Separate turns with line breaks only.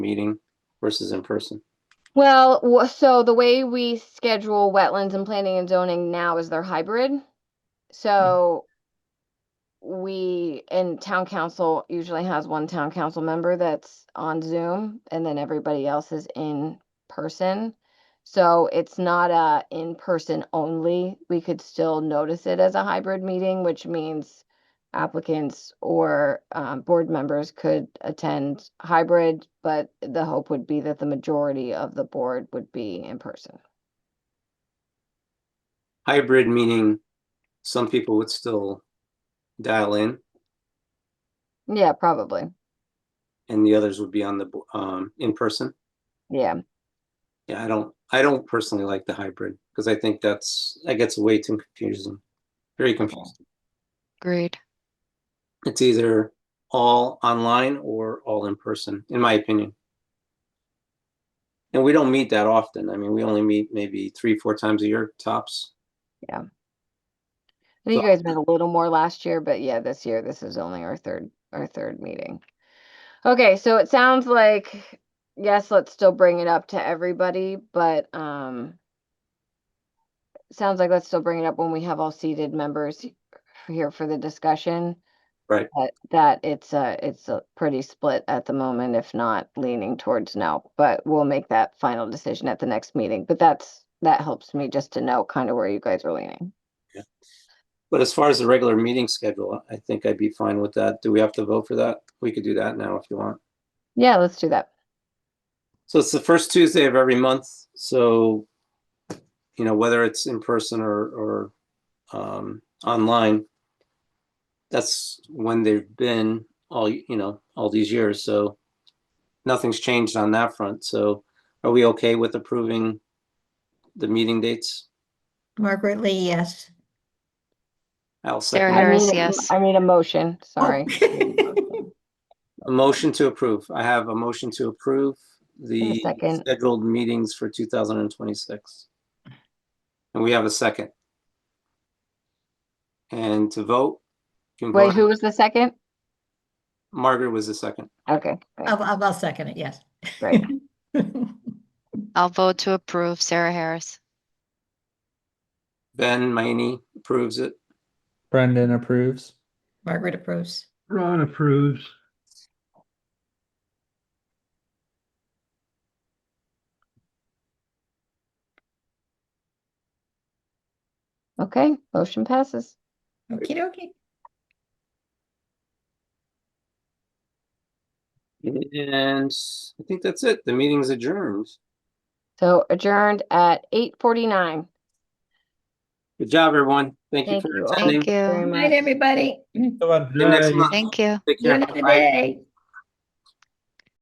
meeting versus in person?
Well, wha- so the way we schedule wetlands and planning and zoning now is they're hybrid. So we, and town council usually has one town council member that's on Zoom and then everybody else is in person. So it's not a in-person only. We could still notice it as a hybrid meeting, which means applicants or um, board members could attend hybrid, but the hope would be that the majority of the board would be in person.
Hybrid meaning some people would still dial in
Yeah, probably.
and the others would be on the, bo- um, in person.
Yeah.
Yeah, I don't, I don't personally like the hybrid because I think that's, that gets way too confusing. Very confusing.
Agreed.
It's either all online or all in person, in my opinion. And we don't meet that often. I mean, we only meet maybe three, four times a year tops.
I think
So-
you guys met a little more last year, but yeah, this year, this is only our third, our third meeting. Okay, so it sounds like, yes, let's still bring it up to everybody, but, um, sounds like let's still bring it up when we have all seated members here for the discussion.
Right.
That, that it's a, it's a pretty split at the moment, if not leaning towards no, but we'll make that final decision at the next meeting. But that's, that helps me just to know kind of where you guys are leaning.
But as far as the regular meeting schedule, I think I'd be fine with that. Do we have to vote for that? We could do that now if you want.
Yeah, let's do that.
So it's the first Tuesday of every month, so, you know, whether it's in person or, or, um, online, that's when they've been all, you know, all these years, so nothing's changed on that front. So are we okay with approving the meeting dates?
Margaret Lee, yes.
I'll
Sarah
second.
I
Harris,
need a-
yes.
I need a motion, sorry.
Oh.
A motion to approve. I have a motion to approve the
second.
scheduled meetings for 2026. And we have a second. And to vote, you can
Wait, who
vote.
was the second?
Margaret was the second.
Okay. great.
I'll, I'll I'll second it, yes.
Right.
I'll vote to approve Sarah Harris.
Ben Mayne approves it.
Brendan approves.
Margaret approves.
Ron approves.
Okay, motion passes.
Okey dokey.
And I think that's it. The meeting's adjourned.
So adjourned at eight forty-nine.
Good job, everyone. Thank you
Thank
for
you all.
attending.
Thank you.
Night, everybody.
Go on.
See you next
Night.
month.
Thank you.
Take care.
Good
Bye.
day.